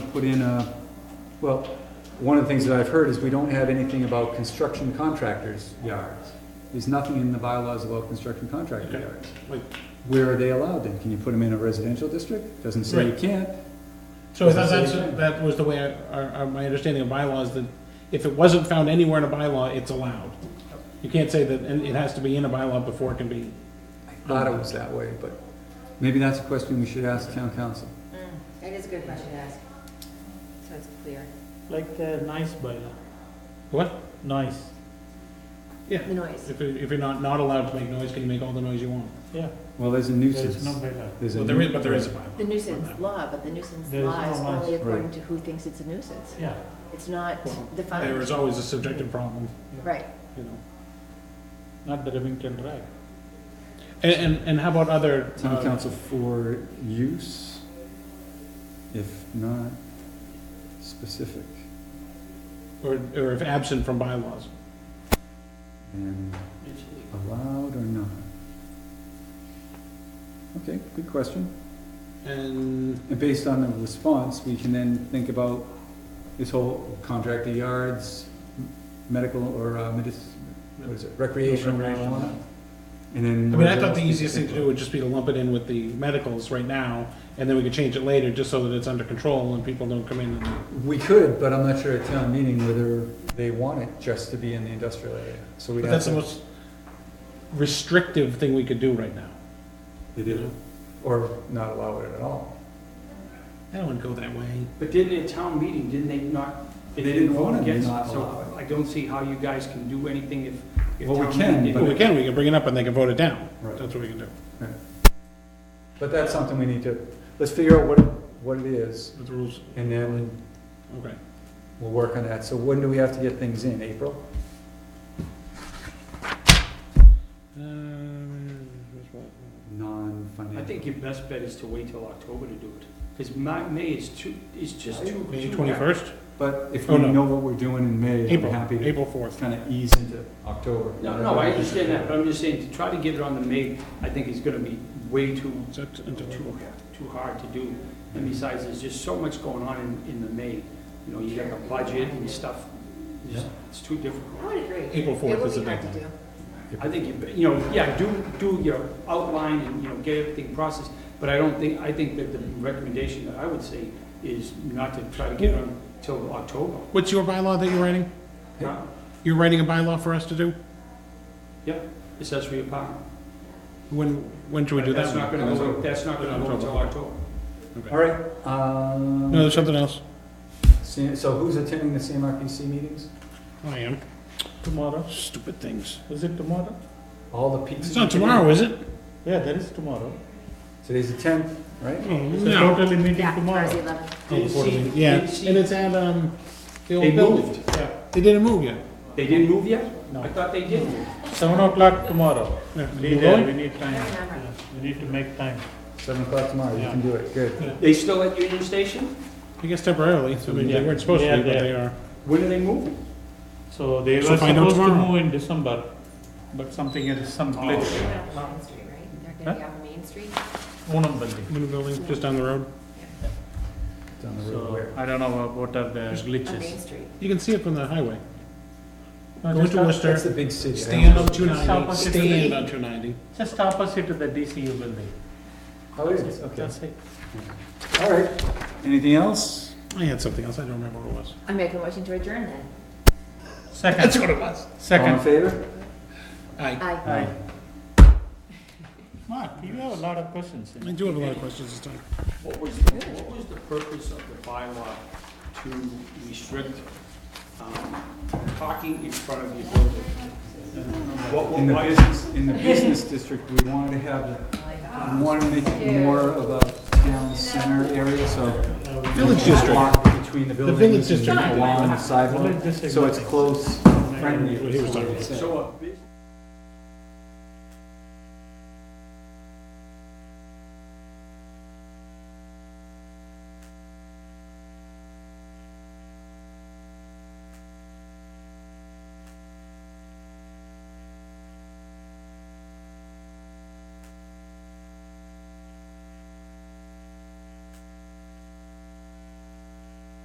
put in a, well, one of the things that I've heard is we don't have anything about construction contractors' yards. There's nothing in the bylaws about construction contractor Okay. yards. Like- Where are they allowed then? Can you put them in a residential district? Doesn't say you Right. can't. So I thought that's, that was the way, I- our, our, my understanding of bylaws, that if it wasn't found anywhere in a bylaw, it's allowed. You can't say that, and it has to be in a bylaw before it can be, I thought it was that way, but maybe that's a question we should ask town council. That is a good question to ask, so it's clear. Like the nice bylaw, what? nice, Yeah. The noise. If, you- if you're not, not allowed to make noise, can you make all the noise you want? yeah, Well, there's a there is nuisance. no bylaw. There's a Well, there is, nu- but there is a bylaw. The nuisance law, but the nuisance There's law is no noise. only according Right. to who thinks it's a nuisance. yeah, It's not Well, There defined, is always a subjective problem, right. you know. not the Remington Drive. And, and, and how about other, Town uh, council for use, if not specific, or, or if absent from bylaws? and allowed or not? Okay, good question. And, And based on the response, we can then think about this whole contractor yards, m- medical or uh, medic, what is it, recreational Recreational. marijuana? And then. I mean, I thought the easiest thing to do would just be to lump it in with the medicals right now, and then we could change it later, just so that it's under control and people don't come in and We could, but I'm not sure at town meeting whether they want it just to be in the industrial area, so we'd But have that's the to. most restrictive thing we could do right now. They do. Or not allow it at all. I don't want to go that way. But didn't at town meeting, didn't they not? They didn't want vote to against not it, allow So I don't see how you guys can do anything if. if Well, we town can, meeting but- Well, we didn't- can, we can bring it up and they can vote it down. Right. That's what we can do. But that's something we need to, let's figure out what, what it is, With the rules, and then okay. we'll work on that. So when do we have to get things in, April? Um, here's what- Non-financial. I think your best bet is to wait till October to do it, because my, May is too, is just too. May too- twenty-first? But if Oh, we no. know what we're doing in May, I'm April, happy to April fourth. kind of ease into October. No, no, I understand that, but I'm just saying, to try to get it on the May, I think is gonna be way too, Is that until- too, too hard to do. And besides, there's just so much going on in, in the May, you know, you got the budget and stuff, It's- it's too difficult. I would agree. April fourth is the It would be hard to deadline. do. I think, you you know, yeah, do, do your outline and, you know, get everything processed, but I don't think, I think that the recommendation that I would say is not to try to get on till October. What's your bylaw that you're writing? Now, You're writing a bylaw for us to do? Accessory apartment. When, when should we do That's not that? gonna go, that's not gonna go until October. All right, um, No, there's something else. C- so who's attending the CMRPC meetings? I am. Tomorrow, Stupid things. is it tomorrow? All the pizza. It's not tomorrow, is it? Yeah, there is tomorrow. Today's the tenth, right? Oh, It's a no. totally meeting Yeah, tomorrow's the tomorrow. 11th. Oh, the board meeting. Yeah, and it's at, um, the old They building. moved. They didn't move yet. They didn't move yet? No. I thought they did move. Seven o'clock tomorrow. Yeah. Be there, we need time, Yeah, we need to make time. Seven o'clock tomorrow, you Yeah. can do it, good. They still at Union Station? I guess temporarily, I mean, they Yeah. weren't supposed to Yeah, be, but they- they are. When are they moving? So they So were find out supposed to tomorrow. move in December, but something is some Oh. glitch. They're on Main Street, right? They're gonna be on Main Street? Unum building. New building, just down the road. Down the road So where? I don't know what- what are the On glitches. Main Street. You can see it from the highway. No, Go just to up- Worcester, That's the big city. I stand don't- on two ninety, Opposite the- stand on two ninety. Just opposite to the DCU building. Oh, it is, okay. That's it. All right, anything else? I had something else, I don't remember what it was. I make a motion to adjourn then. Second, what it was. All in second. favor? I, Aye. Mark, you have a lot of questions. I do have a lot of questions this time. What was, the- what was the purpose of the bylaw to restrict um, parking in front of your building? What, what- In the why is business, in the business district, we wanted to have, the- we wanted to make it more of a town center area, so. Village district. Walk Between the buildings district. and along the Village sidewalk, district. so it's close, friendly. What he was talking about. So a business